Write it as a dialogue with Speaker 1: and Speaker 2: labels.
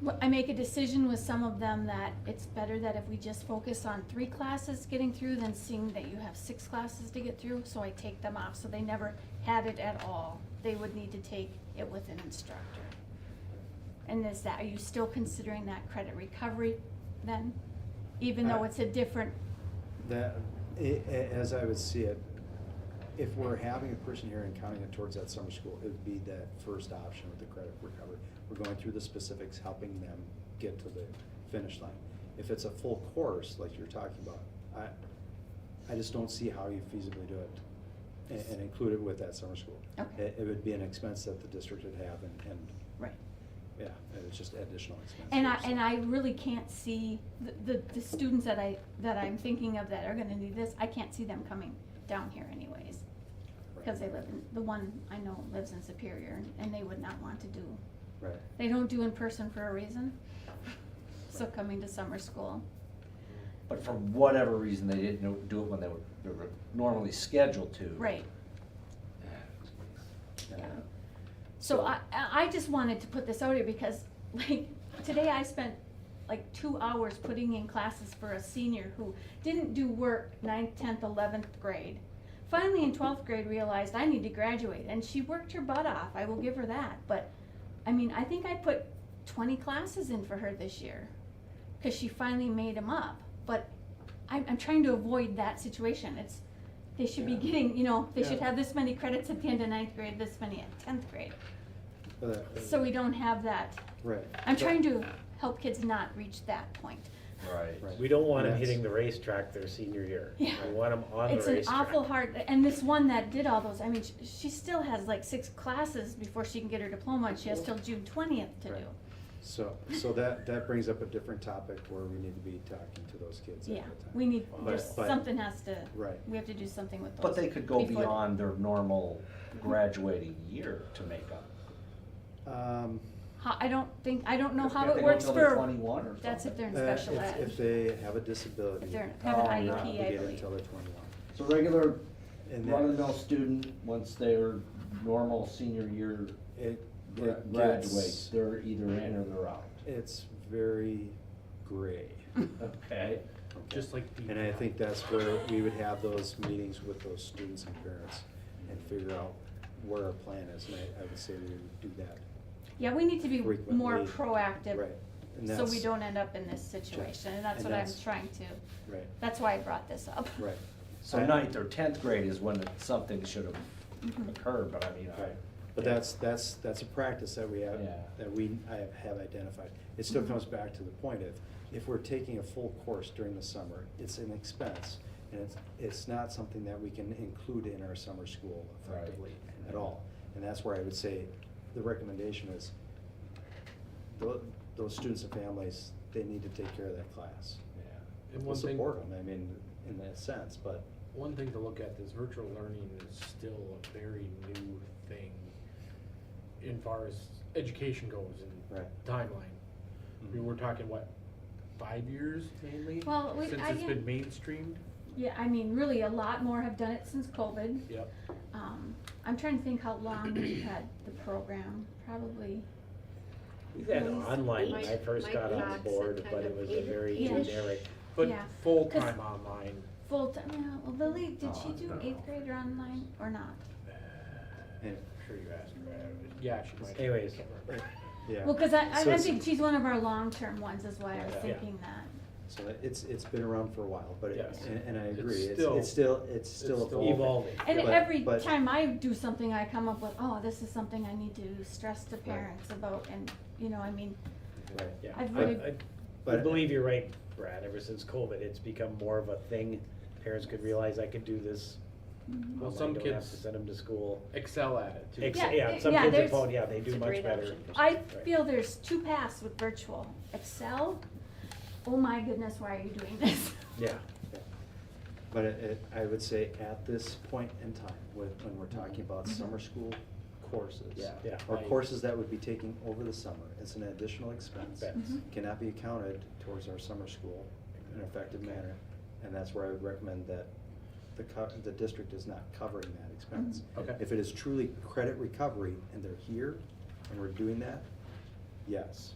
Speaker 1: Well, I make a decision with some of them that it's better that if we just focus on three classes getting through than seeing that you have six classes to get through, so I take them off, so they never had it at all. They would need to take it with an instructor. And is that, are you still considering that credit recovery then? Even though
Speaker 2: Uh,
Speaker 1: it's a different,
Speaker 2: That, a- a- as I would see it, if we're having a person here and counting it towards that summer school, it would be that first option with the credit recovery. We're going through the specifics, helping them get to the finish line. If it's a full course, like you're talking about, I, I just don't see how you feasibly do it and, and include it with that summer school.
Speaker 1: Okay.
Speaker 2: It, it would be an expense that the district would have and, and,
Speaker 1: right.
Speaker 2: yeah, it's just additional expense.
Speaker 1: And I,
Speaker 2: here, so.
Speaker 1: and I really can't see, the, the, the students that I, that I'm thinking of that are gonna need this, I can't see them coming down here anyways.
Speaker 2: Right,
Speaker 1: Because they live in, the one I know lives in Superior, and- and they would not want to do,
Speaker 2: Right.
Speaker 1: they don't do in person for a reason. So coming to summer school,
Speaker 3: But for whatever reason, they didn't know- do it when they were, they were normally scheduled to.
Speaker 1: right,
Speaker 2: Yeah.
Speaker 1: yeah. So I, I I just wanted to put this out here because, like, today I spent like two hours putting in classes for a senior who didn't do work ninth, tenth, eleventh grade. Finally, in twelfth grade, realized I need to graduate, and she worked her butt off, I will give her that, but, I mean, I think I put twenty classes in for her this year. Cause she finally made them up, but I'm, I'm trying to avoid that situation, it's, they should be
Speaker 2: Yeah.
Speaker 1: getting, you know, they should
Speaker 2: Yeah.
Speaker 1: have this many credits at the end of ninth grade, this many at tenth grade.
Speaker 2: Uh,
Speaker 1: So we don't have that,
Speaker 2: Right.
Speaker 1: I'm trying to help kids not reach that point.
Speaker 3: Right.
Speaker 2: Right.
Speaker 4: We don't want them
Speaker 2: Yes.
Speaker 4: hitting the racetrack their senior year.
Speaker 1: Yeah.
Speaker 4: We want them on the
Speaker 1: It's an
Speaker 4: racetrack.
Speaker 1: awful hard, and this one that did all those, I mean, sh- she still has like six classes before she can get her diploma, and she has till June twentieth to do.
Speaker 2: Right. So, so that, that brings up a different topic where we need to be talking to those kids at
Speaker 1: Yeah,
Speaker 2: that time.
Speaker 1: we need,
Speaker 2: But-
Speaker 1: there's,
Speaker 2: but-
Speaker 1: something has to,
Speaker 2: Right,
Speaker 1: we have to do something with those.
Speaker 3: But they could go
Speaker 1: before-
Speaker 3: beyond their normal graduating year to make up.
Speaker 2: um,
Speaker 1: Ho- I don't think, I don't know how
Speaker 3: If
Speaker 1: it
Speaker 3: they go
Speaker 1: works
Speaker 3: till they're
Speaker 1: for,
Speaker 3: Twenty-one or something.
Speaker 1: that's if they're in
Speaker 2: uh,
Speaker 1: special
Speaker 2: if-
Speaker 1: ed,
Speaker 2: If they have a disability. uh,
Speaker 1: if they're,
Speaker 3: Oh,
Speaker 1: have an
Speaker 3: yeah.
Speaker 1: IEP,
Speaker 2: not
Speaker 1: I
Speaker 2: obligated
Speaker 1: believe.
Speaker 2: Until they're twenty-one.
Speaker 3: So regular
Speaker 2: And
Speaker 3: run-of-the-mill
Speaker 2: then
Speaker 3: student, once their normal senior year
Speaker 2: it,
Speaker 3: gra-
Speaker 2: it
Speaker 3: graduates,
Speaker 2: gets,
Speaker 3: they're either in or they're out.
Speaker 2: it's very gray.
Speaker 3: Okay.
Speaker 4: Just like the.
Speaker 2: And I think that's where we would have those meetings with those students and parents and figure out where our plan is. And I, I would say we would do that,
Speaker 1: Yeah, we need to be more
Speaker 2: Frequently.
Speaker 1: proactive,
Speaker 2: right? And
Speaker 1: so we
Speaker 2: that's-
Speaker 1: don't end up in this situation, and that's
Speaker 2: And
Speaker 1: what I'm
Speaker 2: that's-
Speaker 1: trying to,
Speaker 2: Right,
Speaker 1: that's why I brought this up.
Speaker 2: right,
Speaker 3: So ninth or tenth grade is when something should
Speaker 1: Mm-hmm.
Speaker 3: have occurred, but I mean, I.
Speaker 2: right. But that's, that's, that's a practice that we have,
Speaker 3: Yeah.
Speaker 2: that we, I have- have identified. It still comes back to the point of, if we're taking a full course during the summer, it's an expense. And it's, it's not something that we can include in our summer school
Speaker 3: Right.
Speaker 2: effectively at all. And that's where I would say, the recommendation is, tho- those students and families, they need to take care of that class.
Speaker 3: Yeah.
Speaker 5: And
Speaker 2: We'll
Speaker 5: one thing,
Speaker 2: support them, I mean, in that sense, but,
Speaker 5: one thing to look at is virtual learning is still a very new thing in far as education goes and
Speaker 2: right. Mm-hmm.
Speaker 5: timeline. I mean, we're talking what, five years mainly?
Speaker 1: Well, we-
Speaker 5: Since
Speaker 1: I
Speaker 5: it's been
Speaker 1: get-
Speaker 5: mainstreamed?
Speaker 1: Yeah, I mean, really, a lot more have done it since COVID.
Speaker 5: Yep.
Speaker 1: Um, I'm trying to think how long we've had the program, probably.
Speaker 4: We had
Speaker 1: Nice.
Speaker 4: online when I
Speaker 6: Mike-
Speaker 4: first
Speaker 6: Mike
Speaker 4: got on the
Speaker 6: Knox and
Speaker 4: board, but
Speaker 6: kind
Speaker 4: it
Speaker 6: of
Speaker 4: was a very
Speaker 1: Yeah.
Speaker 4: generic, but
Speaker 1: Yeah. 'Cause-
Speaker 4: full-time online.
Speaker 1: Full time, yeah, well, Lily, did she
Speaker 3: Oh,
Speaker 1: do
Speaker 3: no.
Speaker 1: eighth grade or online or not?
Speaker 2: Anyway,
Speaker 5: uh, I'm sure you asked her. uh, Yeah, she might.
Speaker 4: Anyways.
Speaker 5: Can't remember.
Speaker 2: Yeah.
Speaker 1: Well, cause I, I,
Speaker 2: So
Speaker 1: I
Speaker 2: it's-
Speaker 1: think she's one of our long-term ones is why I was
Speaker 2: Yeah.
Speaker 1: thinking that.
Speaker 2: So that- it's, it's been around for a while, but, it-
Speaker 5: Yes.
Speaker 2: and and I
Speaker 5: It's
Speaker 2: agree, it's,
Speaker 5: still-
Speaker 2: it's still, it's
Speaker 5: It's
Speaker 2: still evolving.
Speaker 1: And
Speaker 2: Yeah.
Speaker 1: every
Speaker 2: But- but-
Speaker 1: time I do something, I come up with, oh, this is something I need to stress to parents about and, you know, I mean,
Speaker 2: Right.
Speaker 4: Yeah,
Speaker 1: I've
Speaker 4: I,
Speaker 1: really-
Speaker 4: I, I
Speaker 2: But-
Speaker 4: believe you're right, Brad, ever since COVID, it's become more of a thing. Parents could realize I could do this,
Speaker 5: Well,
Speaker 4: online,
Speaker 5: some
Speaker 4: don't have to
Speaker 5: kids
Speaker 4: send them to school.
Speaker 5: excel at it too.
Speaker 4: Ex-
Speaker 1: Yeah,
Speaker 4: Yeah,
Speaker 1: it-
Speaker 4: some
Speaker 1: yeah,
Speaker 4: kids
Speaker 1: there's-
Speaker 4: at phone, yeah, they
Speaker 6: It's
Speaker 4: do
Speaker 6: a
Speaker 4: much
Speaker 6: great
Speaker 4: better.
Speaker 6: option for
Speaker 1: I
Speaker 4: Right.
Speaker 1: feel there's two paths with virtual. Excel, oh my goodness, why are you doing this?
Speaker 4: Yeah.
Speaker 2: But it, it- I would say at this point in time, with, when we're talking about summer school courses.
Speaker 3: Yeah.
Speaker 4: Yeah.
Speaker 2: Or
Speaker 5: I-
Speaker 2: courses that would be taking over the summer, it's an additional expense,
Speaker 4: Expense.
Speaker 1: Mhm.
Speaker 2: cannot be accounted towards our summer school in an effective manner. And that's where I would recommend that the co- the district is not covering that expense.
Speaker 5: Mhm. Okay.
Speaker 2: If it is truly credit recovery and they're here and we're doing that, yes.